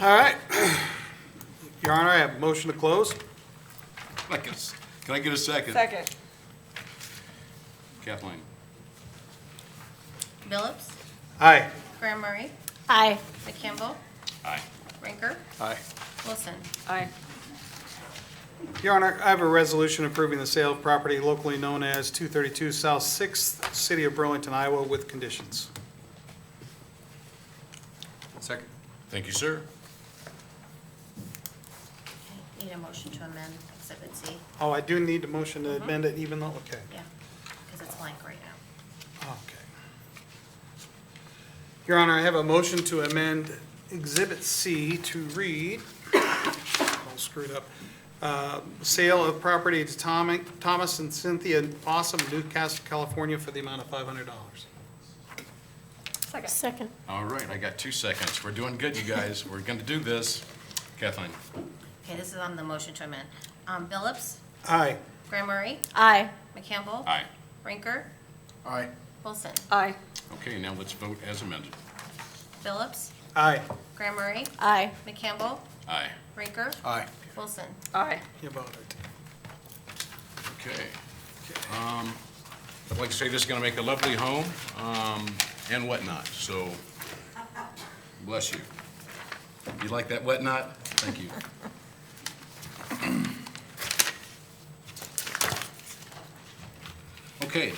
All right. Your Honor, I have a motion to close. Can I get a s- can I get a second? Second. Kathleen? Phillips, Aye. Graham Murray, Aye. McCampbell, Aye. Rinker, Aye. Wilson. Aye. Your Honor, I have a resolution approving the sale of property locally known as 232 South Sixth, City of Burlington, Iowa, with conditions. Second. Thank you, sir. Need a motion to amend Exhibit C, Oh, I do need a motion to amend it even though, okay. Oh, yeah, because it's blank right now. Okay. Your Honor, I have a motion to amend Exhibit C to read, all screwed up, uh, sale of property to Tom- Thomas and Cynthia Fossum, Newcastle, California, for the amount of $500. Second. Second. All right, I got two seconds. We're doing good, you guys. We're going to do this. Kathleen? Okay, this is on the motion to amend. Um, Phillips, Aye. Graham Murray, Aye. McCampbell. Aye. Rinker, Aye. Wilson. Aye. Okay, now let's vote as amended. Phillips, Aye. Graham Murray, Aye. McCampbell, Aye. Rinker, Aye. Wilson. Aye. You voted. Okay. Um, I'd like to say this is going to make a lovely home um, and whatnot, so bless you. You like that whatnot? Thank you. Okay,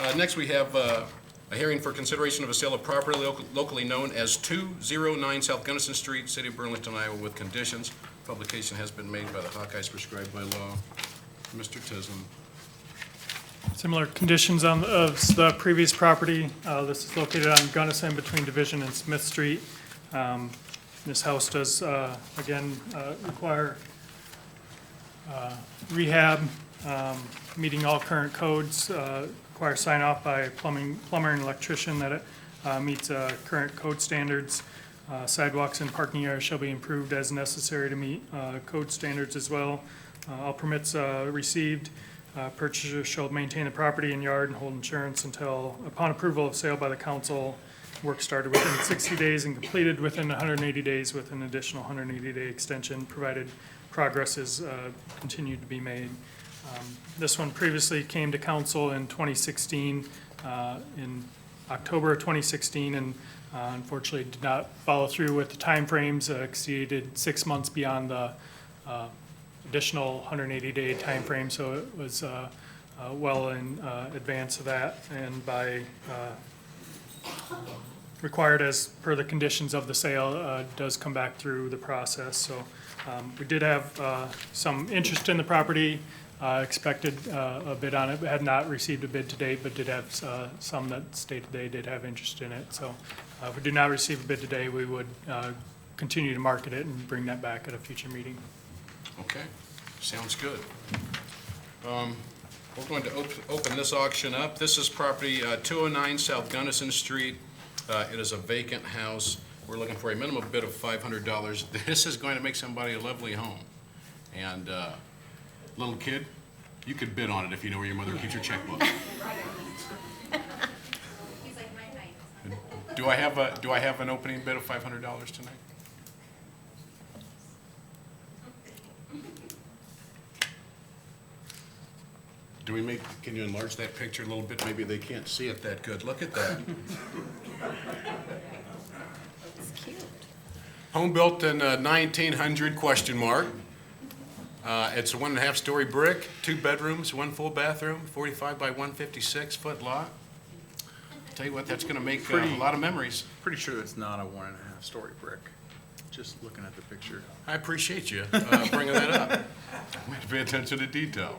uh, next we have uh, a hearing for consideration of a sale of property loc- locally known as 209 South Gunnison Street, City of Burlington, Iowa, with conditions. Publication has been made by the Hawkeyes prescribed by law. Mr. Tisland. Similar conditions on, of the previous property. Uh, This is located on Gunnison between Division and Smith Street. Um, This house does, uh, again, uh, require uh, rehab, um, meeting all current codes, uh, require sign off by plumbing, plumber and electrician that it uh, meets uh, current code standards. Uh, Sidewalks and parking areas shall be improved as necessary to meet uh, code standards as well. Uh, All permits uh, received, uh, purchaser shall maintain the property and yard and hold insurance until, upon approval of sale by the council, work started within 60 days and completed within 180 days with an additional 180-day extension, provided progress is uh, continued to be made. Um, This one previously came to council in 2016, uh, in October of 2016, and uh, unfortunately did not follow through with the timeframes, uh, exceeded six months beyond the uh, additional 180-day timeframe, so it was uh, uh, well in uh, advance of that, and by uh, required as per the conditions of the sale, uh, does come back through the process. So um, we did have uh, some interest in the property, uh, expected uh, a bid on it, but had not received a bid to date, but did have uh, some that stated they did have interest in it. So uh, if we do not receive a bid today, we would uh, continue to market it and bring that back at a future meeting. Okay, sounds good. Um, We're going to op- open this auction up. This is property uh, 209 South Gunnison Street. Uh, It is a vacant house. We're looking for a minimum bid of $500. This is going to make somebody a lovely home. And uh, little kid, you could bid on it if you know where your mother keeps your checkbook. He's like my knight. Do I have a, do I have an opening bid of $500 tonight? Do we make, can you enlarge that picture a little bit? Maybe they can't see it that good. Look at that. It's cute. Home built in uh, 1900, question mark. Uh, It's a one and a half story brick, two bedrooms, one full bathroom, 45 by 156 foot lot. Tell you what, that's going to make uh, a Pretty. lot of memories. Pretty sure it's not a one and a half story brick, just looking at the picture. I appreciate you uh, bringing that up. Way to pay attention to detail.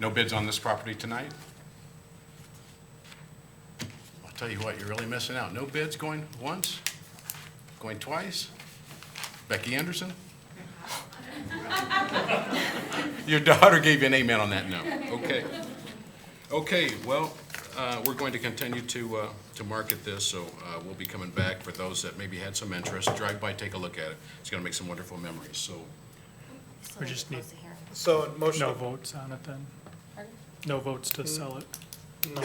No bids on this property tonight? I'll tell you what, you're really missing out. No bids going once, going twice? Becky Anderson? Your daughter gave you an amen on that, no. Okay. Okay, well, uh, we're going to continue to, uh, to market this, so uh, we'll be coming back for those that maybe had some interest. Drive by, take a look at it. It's going to make some wonderful memories, so. So We just close need- the hearing. So, motion. No votes on it then? Pardon? No votes to sell it?